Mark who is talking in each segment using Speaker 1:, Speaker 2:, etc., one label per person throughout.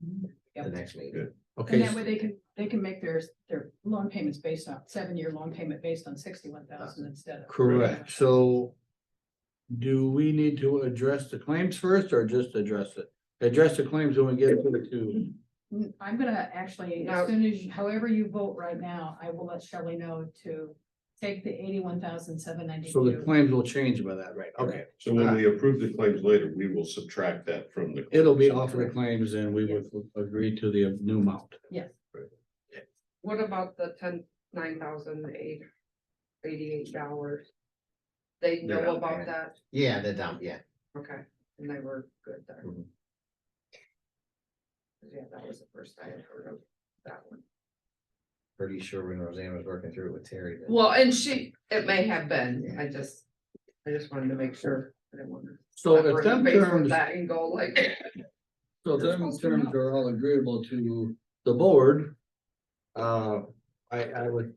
Speaker 1: the
Speaker 2: Yep.
Speaker 1: next meeting.
Speaker 3: Good.
Speaker 2: And
Speaker 4: Okay,
Speaker 2: that way they can, they can make their, their loan payments based on, seven-year loan payment based on sixty-one thousand instead of.
Speaker 4: correct, so. Do we need to address the claims first or just address it? Address the claims when we get to the two.
Speaker 2: Mm, I'm gonna actually,
Speaker 1: No.
Speaker 2: as soon as, you- however you vote right now, I will let Shelley know to take the eighty-one thousand seven
Speaker 4: So the
Speaker 2: ninety-two.
Speaker 4: claims will change by that, right? Okay, Uh,
Speaker 3: So when we approve the claims later, we will subtract that from the.
Speaker 4: it'll be off of the claims and we would agree to the new amount.
Speaker 2: Yes,
Speaker 1: What about the ten, nine thousand eight, eighty-eight dollars? They
Speaker 3: They're
Speaker 1: know
Speaker 3: not
Speaker 1: about
Speaker 3: paying.
Speaker 1: that,
Speaker 5: Yeah, the dump, yeah.
Speaker 1: okay, and they were good there.
Speaker 3: Mhm.
Speaker 1: Yeah, that was the first I had heard of that one.
Speaker 5: Pretty sure when Roseanne was working through it with Terry. that-
Speaker 1: Well, and she, it may have been, I just, I just wanted to make sure, I didn't want to.
Speaker 4: So if them terms,
Speaker 1: That and go like,
Speaker 4: so if
Speaker 1: You're
Speaker 4: them
Speaker 1: supposed to
Speaker 4: terms
Speaker 1: know.
Speaker 4: are all agreeable to the board. Uh, I, I would.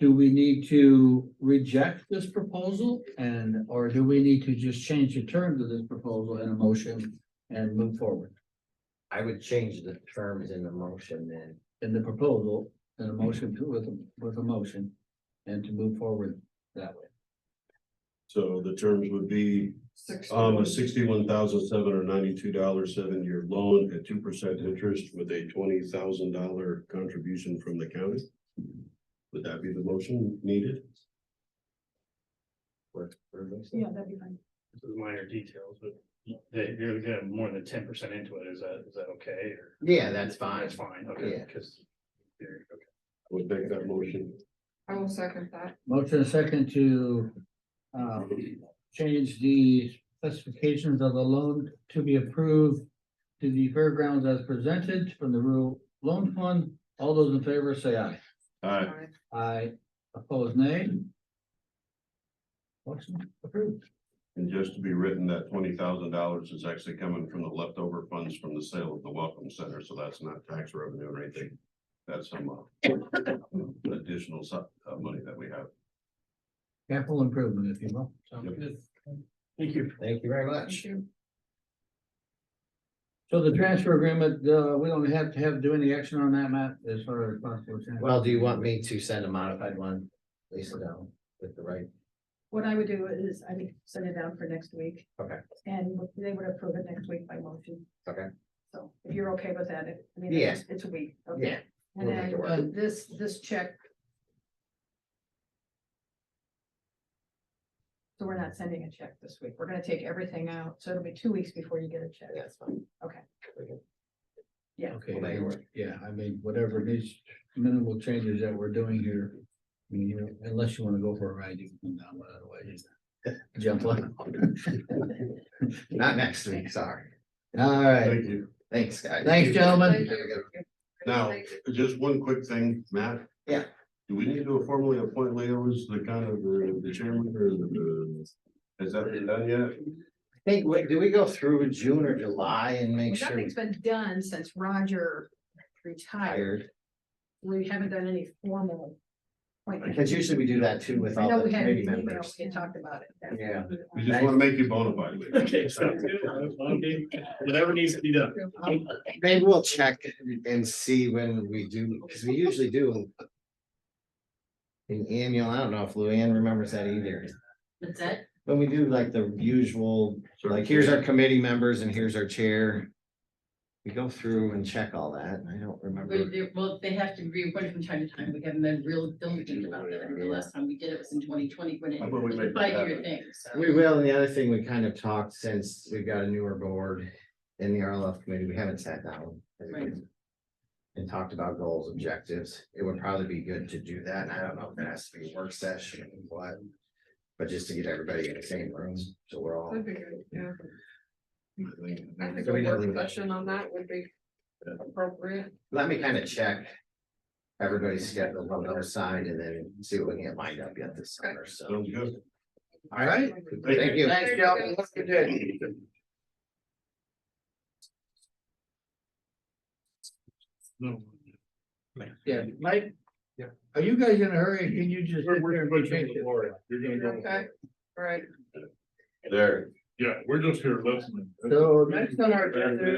Speaker 4: Do we need to reject this proposal and, or do we need to just change the terms of this proposal in a motion and move forward?
Speaker 5: I would change the terms in the motion then.
Speaker 4: in the proposal and a motion to with, a- with a motion and to move forward that way.
Speaker 3: So the terms would be,
Speaker 1: six.
Speaker 3: um, a sixty-one thousand seven hundred ninety-two dollar seven-year loan at two percent interest with a twenty thousand dollar contribution from the county. Would that be the motion needed?
Speaker 5: for- for this.
Speaker 2: yeah, that'd be fine.
Speaker 6: This is minor details, but they, you're gonna have more than ten percent into it, is that, is that okay, or?
Speaker 5: Yeah, that's fine.
Speaker 6: That's fine, okay,
Speaker 5: Yeah.
Speaker 6: because. there, okay.
Speaker 3: Would make that motion.
Speaker 1: I will second that,
Speaker 4: Motion and second to uh, change the specifications of the loan to be approved to the fairgrounds as presented from the rural loan fund. All those in favor say aye.
Speaker 3: Aye.
Speaker 1: Aye.
Speaker 4: Aye, opposed nay. Motion approved.
Speaker 3: And just to be written, that twenty thousand dollars is actually coming from the leftover funds from the sale of the Welcome Center, so that's not tax revenue or anything. That's some uh, additional su- uh, money that we have.
Speaker 4: Capital improvement, if you will. Sounds
Speaker 3: Yep.
Speaker 4: good.
Speaker 6: Thank you.
Speaker 5: Thank you very much.
Speaker 1: thank you,
Speaker 4: So the transfer agreement, uh, we don't have to have, do any action on that, Matt, as far as possible. transfer?
Speaker 5: Well, do you want me to send a modified one, Lisa, down with the right?
Speaker 2: What I would do is I would send it down for next week.
Speaker 5: Okay.
Speaker 2: And they would approve it next week by motion.
Speaker 5: Okay.
Speaker 2: So if you're okay with that, it- I mean,
Speaker 5: Yeah.
Speaker 2: it's, it's a week. okay.
Speaker 5: Yeah,
Speaker 2: And
Speaker 5: we'll make it work.
Speaker 2: then uh, this, this check. So we're not sending a check this week. We're gonna take everything out, so it'll be two weeks before you get a check.
Speaker 5: that's fine.
Speaker 2: Okay.
Speaker 5: We can-
Speaker 4: Okay,
Speaker 5: Well, they were-
Speaker 4: yeah, I mean, whatever these minimal changes that we're doing here, I mean, you know, unless you wanna go for a ride, you can come down, but otherwise. Jump on.
Speaker 5: Not next week, sorry.
Speaker 4: All right,
Speaker 3: Thank you.
Speaker 5: Thanks, guys.
Speaker 4: Thanks, gentlemen.
Speaker 1: thank you.
Speaker 3: Now,
Speaker 1: Thank you.
Speaker 3: just one quick thing, Matt.
Speaker 5: Yeah.
Speaker 3: Do we need to formally appoint Leo as the kind of the the chairman or the, has that been done yet?
Speaker 5: I think, wait, do we go through June or July and make sure we
Speaker 2: Nothing's been done since Roger retired.
Speaker 5: hired?
Speaker 2: We haven't done any formal. appointment.
Speaker 5: Because usually we do that too with
Speaker 2: I know
Speaker 5: all the
Speaker 2: we had an
Speaker 5: committee
Speaker 2: email,
Speaker 5: members.
Speaker 2: we talked about it.
Speaker 5: Yeah.
Speaker 3: We just want to make you bona fide. Leo.
Speaker 6: Okay, sounds good. Okay, Whatever needs to be done.
Speaker 5: Maybe we'll check and see when we do, because we usually do. An annual, I don't know if Luann remembers that either.
Speaker 7: That's it?
Speaker 5: When we do like the usual,
Speaker 3: So-
Speaker 5: like here's our committee members and here's our chair. We go through and check all that, and I don't
Speaker 7: We-
Speaker 5: remember.
Speaker 7: they- Well, they have to reappoint from time to time. We haven't been real diligent about it. I mean, the last time we did it was in twenty twenty when it
Speaker 3: How about we
Speaker 7: was
Speaker 3: make
Speaker 7: a
Speaker 3: that
Speaker 7: five-year
Speaker 3: happen?
Speaker 7: thing, so.
Speaker 5: We will, and the other thing we kind of talked since we've got a newer board in the RLF committee, we haven't sat down. as a
Speaker 7: Right.
Speaker 5: group And talked about goals, objectives. It would probably be good to do that. And I don't know if that has to be a work session or what. But just to get everybody in the same room, so we're all,
Speaker 1: That'd be good, yeah.
Speaker 3: I think-
Speaker 1: I think
Speaker 5: So we
Speaker 1: a
Speaker 5: don't
Speaker 1: work
Speaker 5: leave that.
Speaker 1: session on that would be appropriate.
Speaker 5: let me kind of check. Everybody's schedule on the other side and then see what we can get lined up yet this summer, so.
Speaker 3: Sounds good.
Speaker 5: All right,
Speaker 3: Thank you.
Speaker 5: thank you.
Speaker 1: Thanks, gentlemen. Have a good day.
Speaker 4: yeah, Mike, are you guys in a hurry? Can you just?
Speaker 6: We're- we're- we're-
Speaker 4: Change it?
Speaker 1: Okay, all right.
Speaker 3: There.
Speaker 6: Yeah, we're just here listening.
Speaker 4: So next on our agenda